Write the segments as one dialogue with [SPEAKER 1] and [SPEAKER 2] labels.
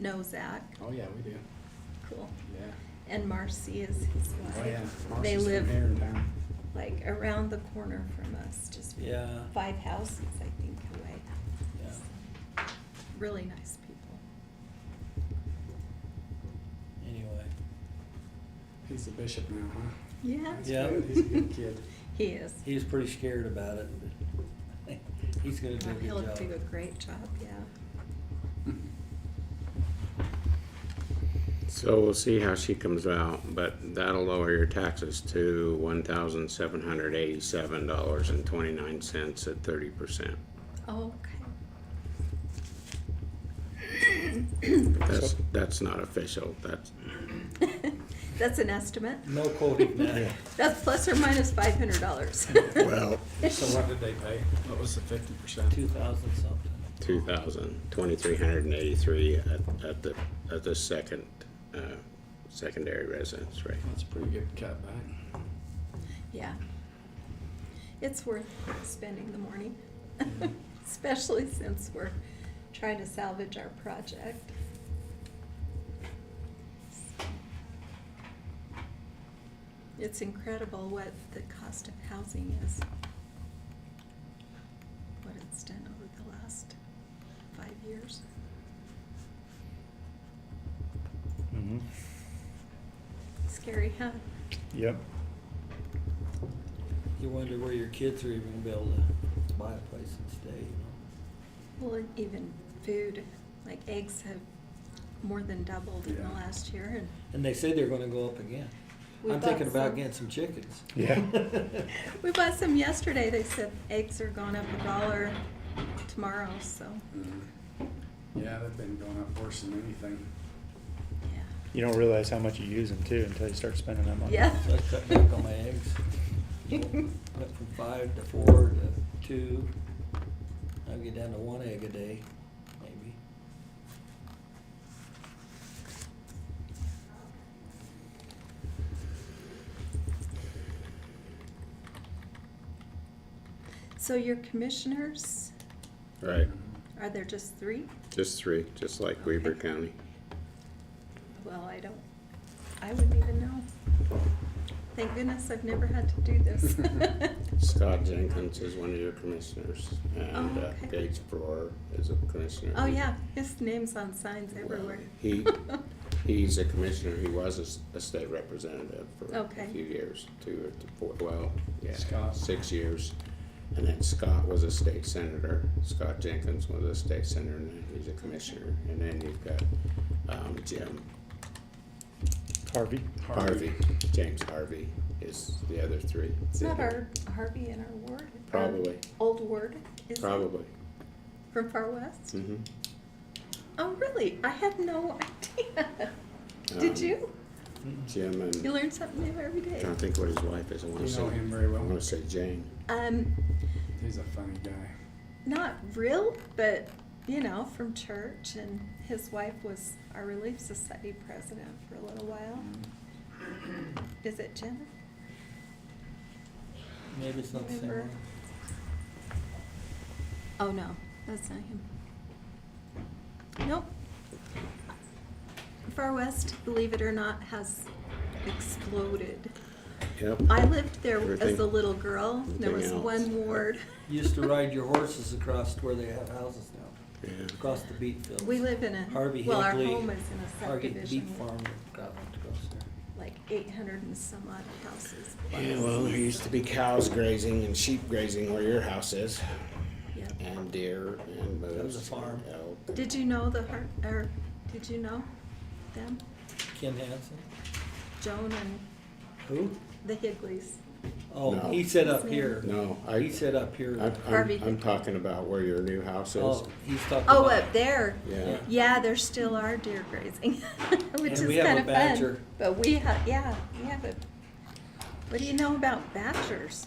[SPEAKER 1] knows that.
[SPEAKER 2] Oh, yeah, we do,
[SPEAKER 1] Cool.
[SPEAKER 2] yeah.
[SPEAKER 1] And Marcy is his
[SPEAKER 2] Oh, yeah.
[SPEAKER 1] wife. They
[SPEAKER 2] Marcy's from
[SPEAKER 1] live
[SPEAKER 2] here in town.
[SPEAKER 1] like around the corner from us, just
[SPEAKER 3] Yeah,
[SPEAKER 1] five houses, I think, away.
[SPEAKER 3] yeah.
[SPEAKER 1] Really nice people.
[SPEAKER 3] Anyway,
[SPEAKER 2] He's the bishop now, huh?
[SPEAKER 1] Yeah.
[SPEAKER 2] That's
[SPEAKER 3] Yeah.
[SPEAKER 2] good. He's a good kid.
[SPEAKER 1] He is.
[SPEAKER 3] he was pretty scared about it, but he's gonna do a
[SPEAKER 1] Well, He'll
[SPEAKER 3] good
[SPEAKER 1] do a
[SPEAKER 3] job.
[SPEAKER 1] great job, yeah.
[SPEAKER 4] So we'll see how she comes out, but that'll lower your taxes to one thousand seven hundred eighty-seven dollars and twenty-nine cents at thirty percent.
[SPEAKER 1] Oh, Okay.
[SPEAKER 4] That's, that's not official, that's,
[SPEAKER 1] That's an estimate.
[SPEAKER 3] No quoting that.
[SPEAKER 1] That's plus or minus five hundred dollars.
[SPEAKER 4] well,
[SPEAKER 2] So what did they pay? What was the fifty percent?
[SPEAKER 3] Two thousand something.
[SPEAKER 4] two thousand, twenty-three hundred and eighty-three at, at the, at the second, uh, secondary residence rate.
[SPEAKER 2] That's a pretty good cut back.
[SPEAKER 1] Yeah. It's worth spending the morning, especially since we're trying to salvage our project. It's incredible what the cost of housing is. What it's done over the last five years.
[SPEAKER 5] Mhm.
[SPEAKER 1] Scary, huh?
[SPEAKER 5] Yep.
[SPEAKER 3] You wonder where your kids are even gonna be able to buy a place and stay, you know?
[SPEAKER 1] Well, and even food, like eggs have more than doubled in the
[SPEAKER 2] Yeah.
[SPEAKER 1] last year and
[SPEAKER 3] And they say they're gonna go up again.
[SPEAKER 1] We
[SPEAKER 3] I'm
[SPEAKER 1] bought
[SPEAKER 3] thinking about
[SPEAKER 1] some.
[SPEAKER 3] getting some chickens.
[SPEAKER 5] Yeah.
[SPEAKER 1] We bought some yesterday. They said eggs are going up a dollar tomorrow, so
[SPEAKER 2] Yeah, they've been going up worse than anything.
[SPEAKER 1] yeah.
[SPEAKER 5] You don't realize how much you use them too until you start spending that money.
[SPEAKER 1] Yeah.
[SPEAKER 3] So I cut back on my eggs. Went from five to four to two. I'll get down to one egg a day, maybe.
[SPEAKER 1] So your commissioners,
[SPEAKER 4] Right,
[SPEAKER 1] are there just three?
[SPEAKER 4] just three, just like Weaver
[SPEAKER 1] Okay.
[SPEAKER 4] County.
[SPEAKER 1] Well, I don't, I wouldn't even know. Thank goodness I've never had to do this.
[SPEAKER 4] Scott Jenkins is one of your commissioners, and
[SPEAKER 1] Oh,
[SPEAKER 4] uh,
[SPEAKER 1] okay.
[SPEAKER 4] Gates Brewer is a commissioner.
[SPEAKER 1] Oh, yeah, his name's on signs
[SPEAKER 4] Well,
[SPEAKER 1] everywhere.
[SPEAKER 4] He, he's a commissioner, he was a s- a, state representative for a
[SPEAKER 1] Okay.
[SPEAKER 4] few years, two or th- four, well, yeah,
[SPEAKER 2] Scott.
[SPEAKER 4] six years. And then Scott was a state senator, Scott Jenkins was a state senator, and then he's a commissioner, and then you've got, um, Jim
[SPEAKER 5] Harvey.
[SPEAKER 4] Harvey, James Harvey is the other three.
[SPEAKER 1] It's not our Harvey in our ward. our
[SPEAKER 4] Probably.
[SPEAKER 1] Old ward, is it?
[SPEAKER 4] Probably,
[SPEAKER 1] From Far West?
[SPEAKER 4] mhm.
[SPEAKER 1] Oh, really? I had no idea. Did
[SPEAKER 4] Um,
[SPEAKER 1] you?
[SPEAKER 2] Mm-hmm.
[SPEAKER 4] Jim and,
[SPEAKER 1] You learn something new every day.
[SPEAKER 4] trying to think what his wife is, I
[SPEAKER 2] You
[SPEAKER 4] wanna say,
[SPEAKER 2] know him very
[SPEAKER 4] I wanna
[SPEAKER 2] well.
[SPEAKER 4] say Jane.
[SPEAKER 1] Um,
[SPEAKER 2] He's a funny guy.
[SPEAKER 1] not real, but you know, from church. And his wife was our Relief Society president for a little while.
[SPEAKER 4] Mm-hmm.
[SPEAKER 1] Is it Jim?
[SPEAKER 3] Maybe it's not the same
[SPEAKER 1] Remember?
[SPEAKER 3] one.
[SPEAKER 1] Oh no, that's not him. Nope. Far West, believe it or not, has exploded.
[SPEAKER 4] Yep.
[SPEAKER 1] I lived there as a
[SPEAKER 4] Everything-
[SPEAKER 1] little girl. There was
[SPEAKER 4] everything else.
[SPEAKER 1] one ward.
[SPEAKER 3] You Used to ride your horses across to where they have houses now,
[SPEAKER 4] Yeah.
[SPEAKER 3] across the beet fields.
[SPEAKER 1] We live in a
[SPEAKER 3] Harvey
[SPEAKER 1] well, our
[SPEAKER 3] Higley,
[SPEAKER 1] home is in a
[SPEAKER 3] Harvey
[SPEAKER 1] subdivision.
[SPEAKER 3] Beet Farm, got one to go there.
[SPEAKER 1] like 800 and some odd houses.
[SPEAKER 4] Yeah, well, there used to be cows grazing and sheep grazing where your house is,
[SPEAKER 1] Yep.
[SPEAKER 4] and deer and moose.
[SPEAKER 3] That was a farm.
[SPEAKER 4] and elk.
[SPEAKER 1] Did you know the Har- or did you know them,
[SPEAKER 3] Ken Hansen?
[SPEAKER 1] Joan and
[SPEAKER 3] Who?
[SPEAKER 1] the Higleys?
[SPEAKER 3] Oh,
[SPEAKER 4] No.
[SPEAKER 3] he said up here.
[SPEAKER 4] No, I,
[SPEAKER 3] He said up here.
[SPEAKER 4] I'm,
[SPEAKER 1] Harvey.
[SPEAKER 4] I'm, I'm talking about where your new house is.
[SPEAKER 3] Oh, he's talking about.
[SPEAKER 1] Oh, up there.
[SPEAKER 4] Yeah,
[SPEAKER 1] Yeah, there still are deer grazing, which
[SPEAKER 3] And
[SPEAKER 1] is
[SPEAKER 3] we have a
[SPEAKER 1] kind of fun.
[SPEAKER 3] badger.
[SPEAKER 1] But we have, yeah, we have a. What do you know about badgers?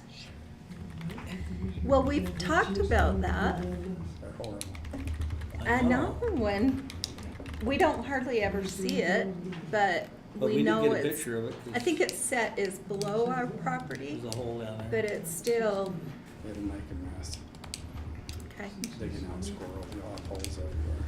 [SPEAKER 1] Well, we've talked about that.
[SPEAKER 2] They're horrible.
[SPEAKER 1] I know
[SPEAKER 3] Oh.
[SPEAKER 1] when we don't hardly ever see it, but
[SPEAKER 3] But
[SPEAKER 1] we
[SPEAKER 3] we
[SPEAKER 1] know
[SPEAKER 3] did
[SPEAKER 1] it's.
[SPEAKER 3] get a picture of it. 'cause
[SPEAKER 1] I think its set is below our property,
[SPEAKER 3] There's a hole down
[SPEAKER 1] but
[SPEAKER 3] there.
[SPEAKER 1] it's still,
[SPEAKER 2] It'll make a mess.
[SPEAKER 1] okay,
[SPEAKER 2] Digging out squirrels, you'll have holes everywhere.